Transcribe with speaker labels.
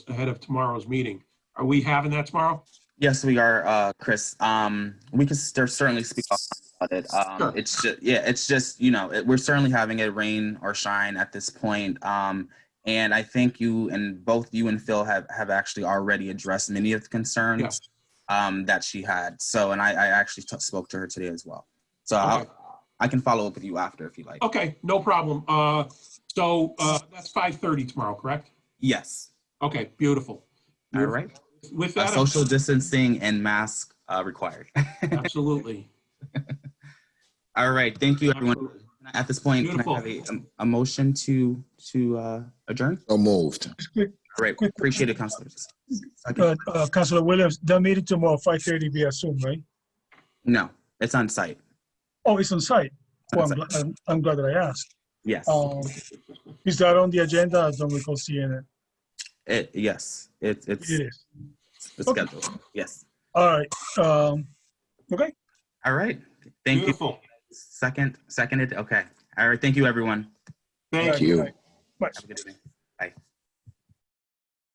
Speaker 1: ahead of tomorrow's meeting. Are we having that tomorrow?
Speaker 2: Yes, we are, uh, Chris. Um, we can cer- certainly speak about it. Um,
Speaker 1: Sure.
Speaker 2: it's just, yeah, it's just, you know, it, we're certainly having it rain or shine at this point. Um, and I think you and both you and Phil have, have actually already addressed many of the
Speaker 1: Yeah.
Speaker 2: concerns um, that she had. So, and I, I actually t- spoke to her today as well. So
Speaker 1: Okay.
Speaker 2: I'll, I can follow up with you after if you like.
Speaker 1: Okay, no problem. Uh, so, uh, that's 5:30 tomorrow, correct?
Speaker 2: Yes.
Speaker 1: Okay, beautiful.
Speaker 2: All right.
Speaker 1: With
Speaker 2: Uh,
Speaker 1: that,
Speaker 2: social distancing and mask uh, required.
Speaker 1: absolutely.
Speaker 2: All right. Thank you, everyone.
Speaker 1: absolutely.
Speaker 2: At this point, can I
Speaker 1: Beautiful.
Speaker 2: have a, um, a motion to, to uh, adjourn?
Speaker 3: So moved.
Speaker 2: Great, appreciate it, counselors. Second.
Speaker 4: But uh, Councilor Williams, the meeting tomorrow, five thirty via Zoom, right?
Speaker 2: No, it's on site.
Speaker 4: Oh, it's on site.
Speaker 2: It's
Speaker 4: Well,
Speaker 2: on
Speaker 4: I'm
Speaker 2: site.
Speaker 4: gl- I'm, I'm glad that I asked.
Speaker 2: Yes,
Speaker 4: Um, is that on the agenda? I don't recall seeing it.
Speaker 2: it, yes, it, it's,
Speaker 4: It is.
Speaker 2: it's
Speaker 4: Okay.
Speaker 2: scheduled, yes.
Speaker 4: All right. Um, okay.
Speaker 2: All right, thank you.
Speaker 1: Beautiful.
Speaker 2: Second, seconded, okay. All right, thank you, everyone.
Speaker 1: Thank you.
Speaker 3: you.
Speaker 4: Bye.
Speaker 2: Have a good evening.